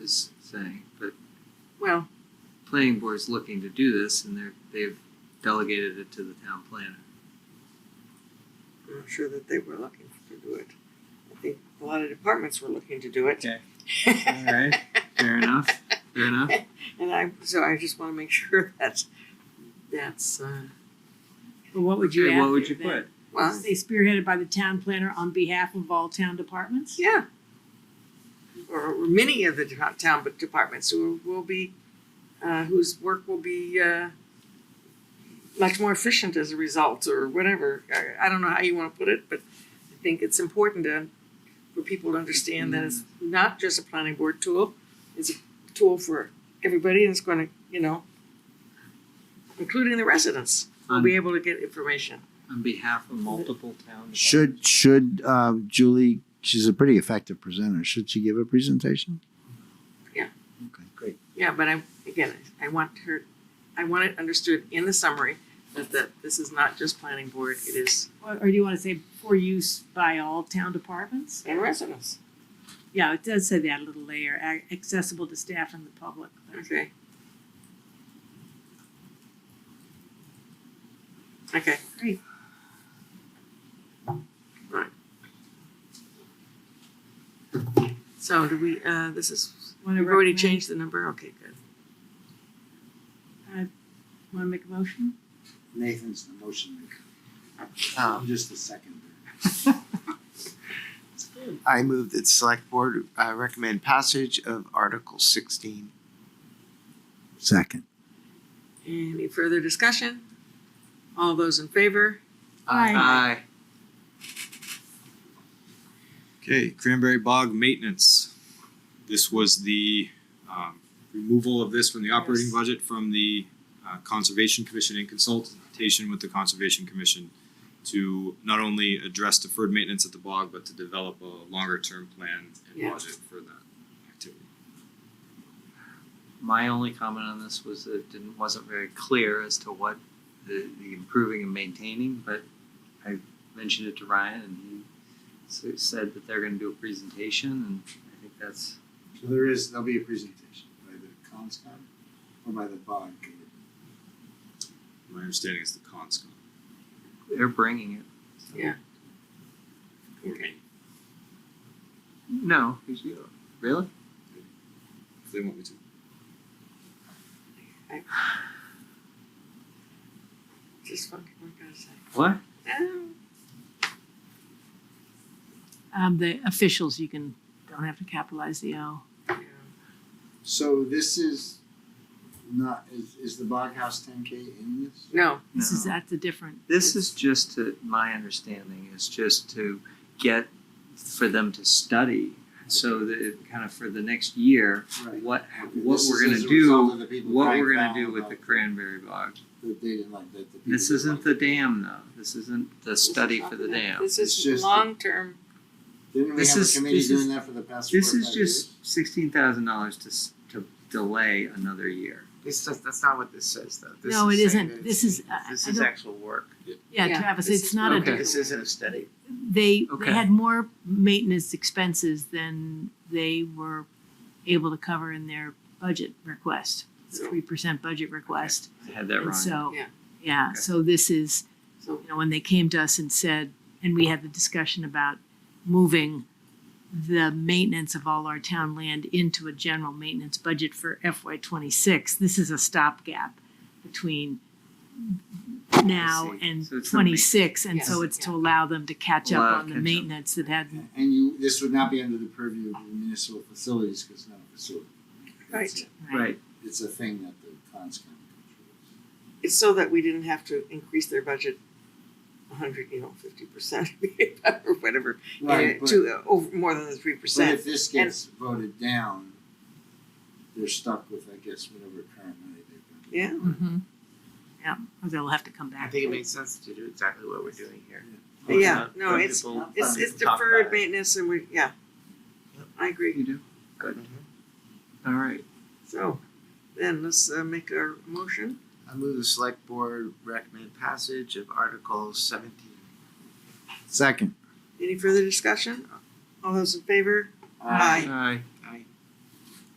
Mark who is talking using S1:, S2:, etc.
S1: is saying, but
S2: Well,
S1: planning board's looking to do this and they're, they've delegated it to the town planner.
S2: I'm not sure that they were looking to do it. I think a lot of departments were looking to do it.
S1: Okay. Alright, fair enough, fair enough.
S2: And I, so I just wanna make sure that, that's, uh,
S3: Well, what would you
S1: Okay,
S3: add
S1: What would you
S3: there then?
S1: put?
S2: well,
S3: Say spearheaded by the town planner on behalf of all town departments?
S2: yeah. Or or many of the to- town but departments who will be, uh, whose work will be, uh, much more efficient as a result or whatever. I, I don't know how you wanna put it, but I think it's important to, for people to understand that it's not just a planning board tool. It's a tool for everybody and it's gonna, you know, including the residents, will be able to get information.
S1: On behalf of multiple town.
S4: Should should uh, Julie? She's a pretty effective presenter. Should she give a presentation?
S2: Yeah.
S4: Okay, great.
S2: Yeah, but I, again, I want her, I want it understood in the summary that, that this is not just planning board, it is.
S3: Or, or do you wanna say for use by all town departments?
S2: And residents.
S3: Yeah, it does say that a little later, ac- accessible to staff and the public.
S2: Okay. Okay, so do we, uh, this is,
S3: Wanna
S2: we've already
S3: recommend-
S2: changed the number, okay, good.
S3: Wanna make a motion?
S4: Nathan's the motion maker.
S5: Um,
S4: I'm just the second.
S5: I move that select board uh recommend passage of Article sixteen.
S4: Second.
S2: Any further discussion? All those in favor?
S1: Aye.
S6: Okay, Cranberry Bog maintenance. This was the um removal of this from the operating
S3: Yes.
S6: budget from the uh Conservation Commission in consultation with the Conservation Commission to not only address deferred maintenance at the bog, but to develop a longer term plan
S2: Yeah.
S6: and budget for that activity.
S1: My only comment on this was that it didn't, wasn't very clear as to what the, the improving and maintaining, but I mentioned it to Ryan and he s- said that they're gonna do a presentation and I think that's,
S4: So there is there'll be a presentation by the conscom or by the bog.
S6: My understanding is the conscom.
S1: they're bringing it. so.
S2: Yeah.
S6: Okay.
S1: No, who's you? Really?
S6: If they want me to.
S2: Just fucking, what can I say?
S1: What?
S2: Um,
S3: Um, the officials, you can, don't have to capitalize the O.
S2: yeah.
S4: So this is not is, is the bog house 10k in this?
S2: No,
S3: This is,
S1: No.
S3: that's a different.
S1: This is just to, my understanding is just to get, for them to study, so that it kind of for the next year,
S4: Right.
S1: what,
S4: Okay,
S1: what
S4: this
S1: we're
S4: is
S1: gonna
S4: as a
S1: do,
S4: result of the people
S1: what
S4: crying
S1: we're gonna
S4: foul
S1: do with
S4: about
S1: the cranberry bog.
S4: that they didn't like that the people
S1: This
S4: didn't
S1: isn't
S4: like
S1: the dam though, this isn't the
S2: this is
S1: study
S2: not
S1: for the
S2: that.
S1: dam.
S2: This
S4: It's
S2: is
S4: just the-
S2: long-term,
S4: Didn't we
S1: This
S4: have a
S1: is-
S4: committee
S1: this
S4: doing
S1: is-
S4: that for the past four or
S1: This is
S4: five years?
S1: just sixteen thousand dollars to, s- to delay another year.
S5: This does, that's not what this says though. This
S3: No,
S5: is
S3: it
S5: saying
S3: isn't.
S5: that
S3: This
S5: it's-
S3: is- uh, I-
S5: This
S3: I
S5: is
S3: don't-
S5: actual work.
S3: Yeah,
S2: Yeah.
S3: Travis,
S5: This
S3: it's
S5: is-
S3: not a
S1: okay.
S3: different.
S5: This isn't a study.
S3: they
S1: Okay.
S3: they had more maintenance expenses than they were able to cover in their budget request,
S2: So-
S3: three percent budget request.
S1: I had that
S3: And
S1: wrong.
S3: so,
S2: Yeah.
S3: yeah,
S1: Okay.
S3: so this is,
S2: so
S3: you know, when they came to us and said, and we had the discussion about moving the maintenance of all our town land into a general maintenance budget for FY twenty-six, this is a stopgap between now
S1: I see.
S3: and
S1: So it's a ma-
S3: twenty-six, and so
S2: Yes.
S3: it's to allow them to catch up
S1: Allow
S3: on
S1: catch
S3: the
S1: up.
S3: maintenance that hadn't
S4: And you, this would not be under the purview of the municipal facilities because it's not a facility.
S2: Right.
S4: It's
S1: Right,
S4: a- It's a thing that the cons can control.
S2: It's so that we didn't have to increase their budget a hundred, you know, fifty percent or whatever,
S4: Right,
S2: uh,
S4: but,
S2: to, uh, over, more than the three
S4: but if
S2: percent.
S4: this gets voted down, they're stuck with, I guess, whatever current money they've got.
S2: Yeah,
S3: Yeah, or they'll have to come
S5: I
S3: back.
S5: think it makes sense to do exactly what we're doing here.
S2: But yeah, no,
S1: Other
S2: it's,
S1: people-
S2: it's, it's
S5: Talk about
S2: deferred
S5: it.
S2: maintenance and we, yeah. I agree,
S1: you do, good,
S5: Mm-hmm.
S1: all right.
S2: so then let's, uh, make our motion,
S5: I move the select board recommend passage of Article seventeen.
S4: Second.
S2: any further discussion? All those in favor? Aye.
S1: Aye.